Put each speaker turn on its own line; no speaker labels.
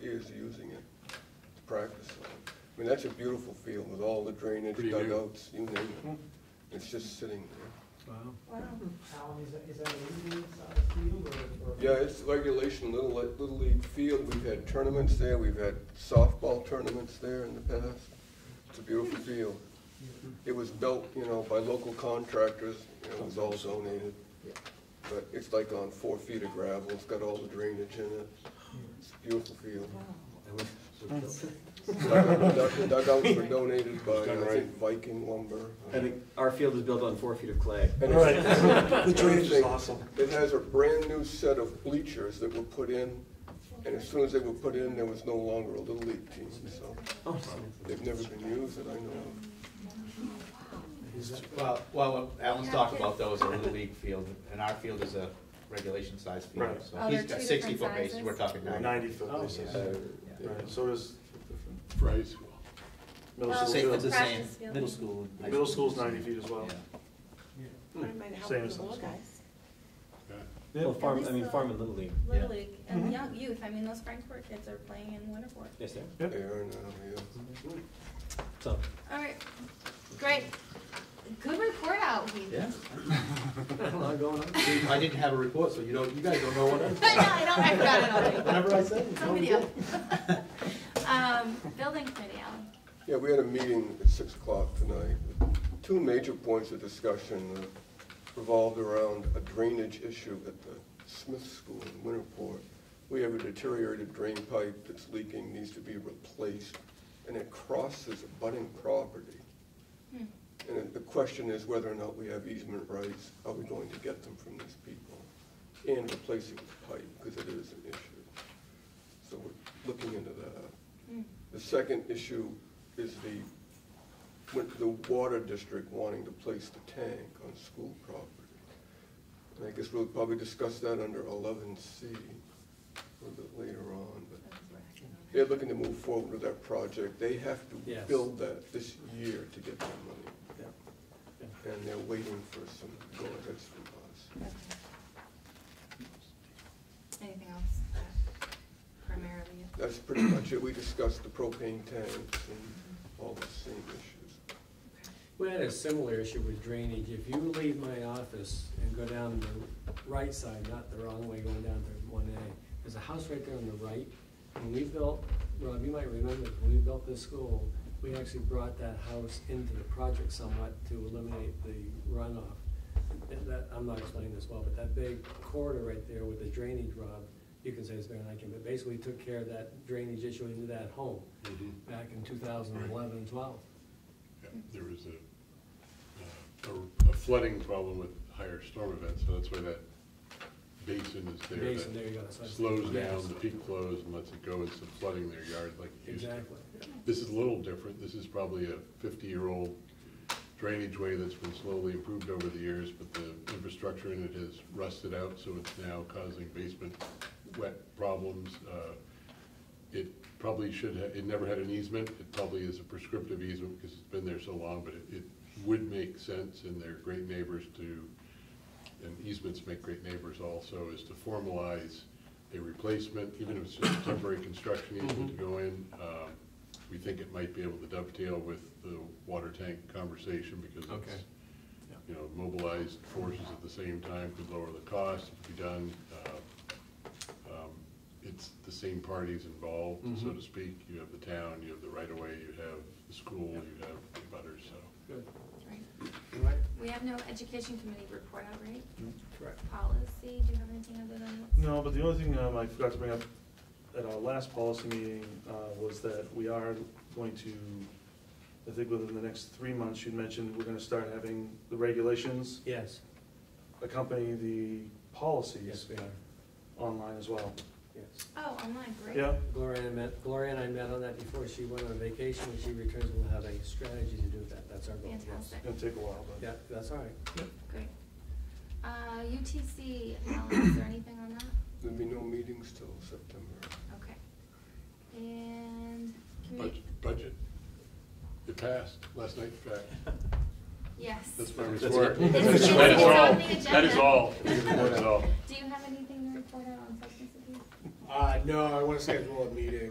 years of using it to practice on. I mean, that's a beautiful field with all the drainage
Pretty new.
dugouts, you name it. It's just sitting there.
Wow.
Alan, is that, is that a medium sized field or? or-
Yeah, it's regulation, little, li- little league field. We've had tournaments there. We've had softball tournaments there in the past. It's a beautiful field. It was built, you know, by local contractors. you know, It was all donated. But it's like on four feet of gravel. It's got all the drainage in it. It's a beautiful field. Dug- Dugouts were uh, donated uh, by, I think, Viking lumber.
And our field is built on four feet of clay.
And it's- The drainage is awesome. It has a brand-new set of bleachers that were put in, and as soon as they were put in, there was no longer a Little League team, so
Oh,
they've never been used that I know of.
Well, well, what Alan's talking about though is a little league field, and our field is a regulation size field,
Right.
so
Oh,
he's
they're
got
two
sixty
different
foot bases,
sizes?
we're talking ninety.
Ninety foot
Oh,
bases.
So, yeah.
Right, so does
Fries.
middle
It's the
school.
same,
too.
it's the same,
Practice field.
middle school. and high
Middle
school.
school's ninety feet as well.
Or it might help
Same
the
as
little
this one.
guys.
Well, farm,
At
I
least
mean,
the-
farm and Little League,
Little League and young youth, I mean, those Frankfurt kids are playing in Winterport.
yes, sir.
They are now, uh, yeah.
So,
All right, great. Good report out, Heath.
Yeah. See, I didn't have a report, so you don't, you guys don't know what I,
But no, I don't, I forgot it already.
whatever I said. it's all
Somebody
good.
else. Um, building committee, Alan.
Yeah, we had a meeting at six o'clock tonight. Two major points of discussion uh, revolved around a drainage issue at the Smith School in Winterport. We have a deteriorated drain pipe that's leaking, needs to be replaced, and it crosses abutting property. And the question is whether or not we have easement rights, are we going to get them from these people? And replacing the pipe, because it is an issue. So we're looking into that. The second issue is the, with the water district wanting to place the tank on school property. And I guess we'll probably discuss that under eleven C a little bit later on, but they're looking to move forward with that project. They have to
Yes.
build that this year to get their money. And they're waiting for some go-aheads from us.
Anything else? Primarily.
That's pretty much it. We discussed the propane tanks and all the same issues.
We had a similar issue with drainage. If you leave my office and go down the right side, not the wrong way, going down to one A, there's a house right there on the right. When we built, Rob, you might remember, when we built this school, we actually brought that house into the project somewhat to eliminate the runoff. And that, I'm not explaining this well, but that big corridor right there with the drainage, Rob, you can say it's Van Eyck, but basically took care of that drainage issue into that home back in 2011 and 12.
Yeah, There was a, uh, a flooding problem with higher storm events, so that's why that basin is there. that
Basin, there you go. that's what I-
Slows
Yes,
down, the peak flows and lets it go into flooding their yard like it used to.
Exactly.
This is a little different, this is probably a fifty-year-old drainage way that's been slowly improved over the years, but the infrastructure in it has rusted out, so it's now causing basement wet problems. Uh, It probably should, ha- it never had an easement, it probably is a prescriptive easement because it's been there so long, but it, it would make sense, and they're great neighbors to, and easements make great neighbors also, is to formalize a replacement, even if it's just a temporary construction easement to go in. Um, We think it might be able to dovetail with the water tank conversation because
Okay.
it's, you know, mobilized forces at the same time could lower the cost, it could be done. uh, um, It's the same parties involved, so to speak. You have the town, you have the right-of-way, you have the school, you have the butters, so.
Good.
Right. We have no education committee report out, right? Correct. Policy, do you have anything other than what's?
No, but the only thing um, I forgot to bring up at our last policy meeting uh, was that we are going to, I think within the next three months, you mentioned we're gonna start having the regulations
Yes,
accompany the
yes,
policies
we are,
online as well.
yes.
Oh, online, great.
Yeah,
Gloria and I met, Gloria and I met on that before she went on vacation. When she returns, we'll have a strategy to do that. That's our goal. yes.
Fantastic,
it'll take a while, but.
Yeah, that's all right.
great. Uh, UTC, Alan, um, is there anything on that?
There'll be no meetings till September.
Okay. And commu-
Budget- Budget. It passed last night, in fact.
yes.
That's my
That's
report.
it.
It's-
That's
it's
all.
on the
That is
agenda.
all. That's all.
Do you have anything to report out on substance abuse?
Uh, no, I wanna schedule a meeting